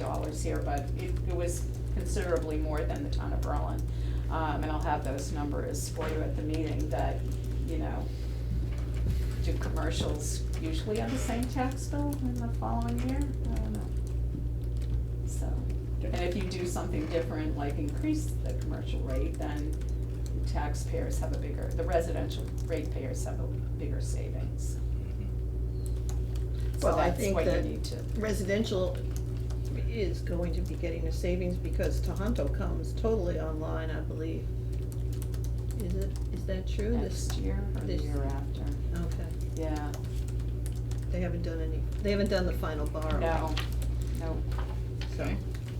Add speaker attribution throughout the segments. Speaker 1: dollars here, but it, it was considerably more than the town of Berlin. Um, and I'll have those numbers for you at the meeting that, you know, do commercials usually have the same tax bill in the following year? I don't know. So, and if you do something different, like increase the commercial rate, then taxpayers have a bigger, the residential ratepayers have a bigger savings. So
Speaker 2: Well, I
Speaker 1: that's
Speaker 2: think
Speaker 1: what you
Speaker 2: that-
Speaker 1: need to.
Speaker 2: Residential is going to be getting a savings because Tohoto comes totally online, I believe. Is it, is that true? This-
Speaker 1: Next year or the
Speaker 2: this-
Speaker 1: year after,
Speaker 2: Okay,
Speaker 1: yeah,
Speaker 2: they haven't done any, they haven't done the final borrow,
Speaker 1: no, no,
Speaker 2: so, okay.
Speaker 1: um,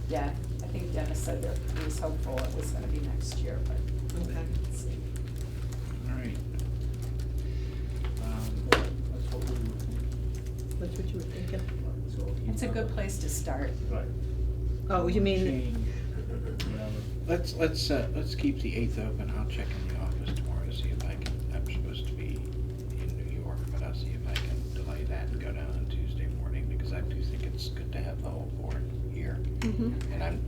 Speaker 1: yeah, I think Dennis said that he was hopeful it was gonna be next year, but let's see.
Speaker 3: All right. Um,
Speaker 4: That's what we were thinking.
Speaker 2: That's what you were thinking?
Speaker 4: So you
Speaker 1: It's a good
Speaker 4: have
Speaker 1: place to start.
Speaker 4: Right.
Speaker 2: Oh, you mean,
Speaker 3: change.
Speaker 4: Whatever.
Speaker 3: Let's, let's, uh, let's keep the eighth open, I'll check in the office tomorrow to see if I can, I'm supposed to be in New York, but I'll see if I can delay that and go down on Tuesday morning, because I do think it's good to have the whole board here.
Speaker 2: mhm,
Speaker 3: And I'm,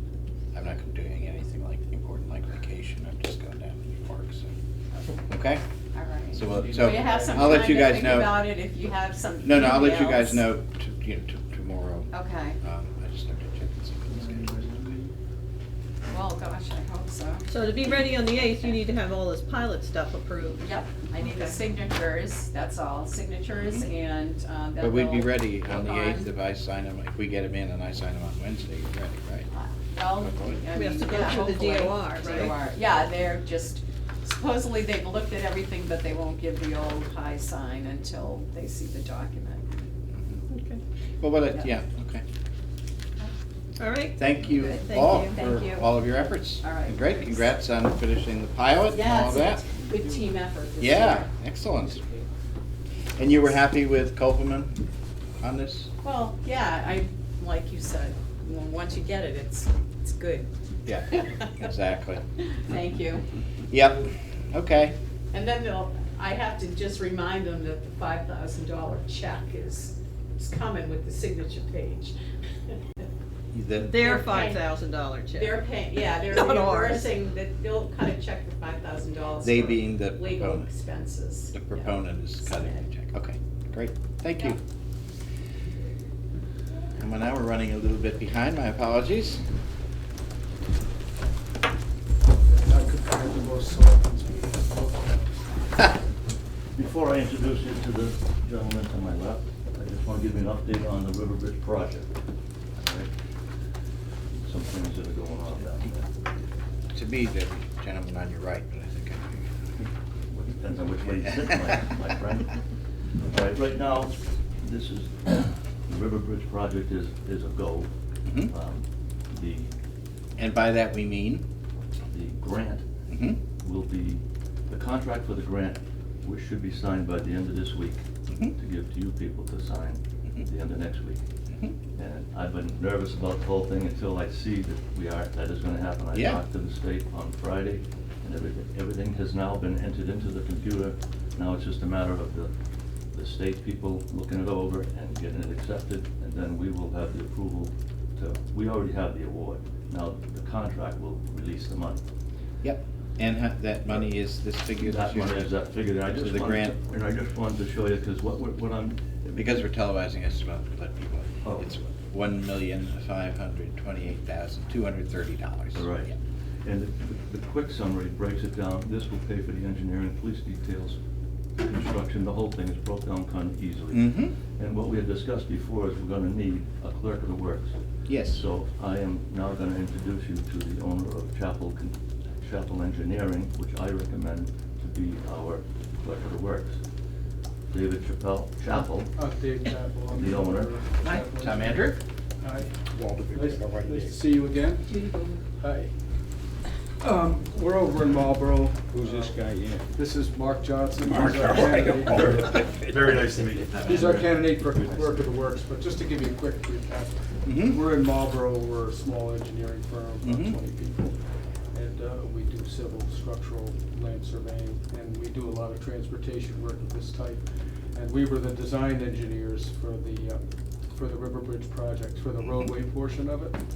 Speaker 3: I'm not doing anything like important like vacation, I'm just going down to New York, so, okay?
Speaker 1: All right.
Speaker 3: So, we'll- so,
Speaker 1: Well, you have some
Speaker 3: I'll
Speaker 1: time
Speaker 3: let
Speaker 1: to
Speaker 3: you guys
Speaker 1: think
Speaker 3: know.
Speaker 1: about it if you have some.
Speaker 3: No, no, I'll let you guys
Speaker 1: emails.
Speaker 3: know to, you know, to, tomorrow,
Speaker 1: Okay,
Speaker 3: um, I just have to check and see what the schedule is, okay?
Speaker 1: well, gosh, I hope so.
Speaker 2: so to be ready on the eighth, you need to have all this pilot stuff approved.
Speaker 1: Yep, I need the
Speaker 2: Okay.
Speaker 1: signatures, that's all, signatures and um, that
Speaker 3: But we'd be
Speaker 1: will-
Speaker 3: ready on the
Speaker 1: Hold
Speaker 3: eighth
Speaker 1: on.
Speaker 3: if I sign them, if we get them in and I sign them on Wednesday, you're ready, right?
Speaker 1: Uh, Well, I
Speaker 2: We have
Speaker 1: mean,
Speaker 2: to go
Speaker 1: yeah,
Speaker 2: through the
Speaker 1: hopefully.
Speaker 2: DOR, right?
Speaker 1: DOR. yeah, they're just, supposedly they've looked at everything, but they won't give the old high sign until they see the document.
Speaker 2: Okay,
Speaker 3: Mm-hmm. Well, well, it- yeah,
Speaker 1: Yeah.
Speaker 3: okay.
Speaker 2: all right,
Speaker 3: Thank you
Speaker 1: Good,
Speaker 2: thank
Speaker 3: all
Speaker 2: you.
Speaker 3: for
Speaker 1: Thank you.
Speaker 3: all of your efforts.
Speaker 1: All right.
Speaker 3: And Great, congrats on finishing the pilot and
Speaker 1: Yes,
Speaker 3: all of that.
Speaker 1: Good team effort this year.
Speaker 3: Yeah, excellent. And you were happy with Kopelman on this?
Speaker 1: Well, yeah, I, like you said, w- once you get it, it's, it's good.
Speaker 3: Yeah, exactly.
Speaker 1: Thank you.
Speaker 3: Yep, okay.
Speaker 1: And then they'll, I have to just remind them that the five thousand dollar check is, is coming with the signature page.
Speaker 3: The-
Speaker 2: their
Speaker 1: They're
Speaker 2: five
Speaker 1: paying-
Speaker 2: thousand dollar check.
Speaker 1: They're paying, yeah, they're
Speaker 2: Not ours.
Speaker 1: reimbursing, that they'll cut a check for five thousand dollars.
Speaker 3: They being the
Speaker 1: Legal
Speaker 3: proponent,
Speaker 1: expenses.
Speaker 3: the
Speaker 1: yeah.
Speaker 3: proponent is cutting the check. Okay, great, thank you. And well, now we're running a little bit behind, my apologies.
Speaker 4: And I could find the most selectmen's meeting.
Speaker 5: Before I introduce you to the gentleman to my left, I just want to give you an update on the River Bridge project. all right? Some things that are going on down there.
Speaker 3: To me, the gentleman on your right, but I think I.
Speaker 5: Well, Depends on which way you sit, my, my friend. All right, right now, this is, the River Bridge project is, is a go.
Speaker 3: Mhm.
Speaker 5: Um, The,
Speaker 3: And by that we mean?
Speaker 5: the grant
Speaker 3: Mhm,
Speaker 5: will be, the contract for the grant, which should be signed by the end of this week,
Speaker 3: mhm,
Speaker 5: to give to you people to sign at the end of next week.
Speaker 3: mhm.
Speaker 5: And I've been nervous about the whole thing until I see that we are, that is gonna happen. I
Speaker 3: Yeah.
Speaker 5: talked to the state on Friday, and everything, everything has now been entered into the computer. Now it's just a matter of the, the state people looking it over and getting it accepted, and then we will have the approval to, we already have the award. Now, the contract will release the money.
Speaker 3: Yep, and ha- that money is this figure this
Speaker 5: That money is
Speaker 3: year?
Speaker 5: that figure, and I
Speaker 3: So
Speaker 5: just
Speaker 3: the
Speaker 5: wanted,
Speaker 3: grant-
Speaker 5: to- and I just wanted to show you, because what, we're- what I'm,
Speaker 3: Because we're televising, it's about, let people,
Speaker 5: Oh.
Speaker 3: it's one million, five hundred, twenty-eight thousand, two hundred, thirty dollars.
Speaker 5: All right. And the, the quick summary breaks it down, this will pay for the engineering, police details, construction, the whole thing is broke down kind of easily.
Speaker 3: Mm-hmm,
Speaker 5: And what we had discussed before is we're gonna need a clerk of the works.
Speaker 3: yes.
Speaker 5: So I am now gonna introduce you to the owner of Chapel, Con- Chapel Engineering, which I recommend to be our clerk of the works. David Chappelle, Chapel,
Speaker 4: Update that one.
Speaker 5: The owner.
Speaker 3: Hi, Tom Andrew?
Speaker 4: Hi. Nice nice to see you again. Hi. Um, We're over in Marlboro.
Speaker 6: Who's this guy in?
Speaker 4: This is Mark Johnson. who's
Speaker 3: Mark,
Speaker 4: our
Speaker 3: all right.
Speaker 4: candidate.
Speaker 6: Very nice to meet you.
Speaker 4: He's our candidate for clerk of the works, but just to give you a quick recap,
Speaker 3: Mhm,
Speaker 4: We're in Marlboro, we're a small engineering firm, about
Speaker 3: Mhm.
Speaker 4: twenty people. And uh, we do civil, structural, land surveying, and we do a lot of transportation work of this type. And we were the design engineers for the uh, for the River Bridge project, for the roadway portion of it.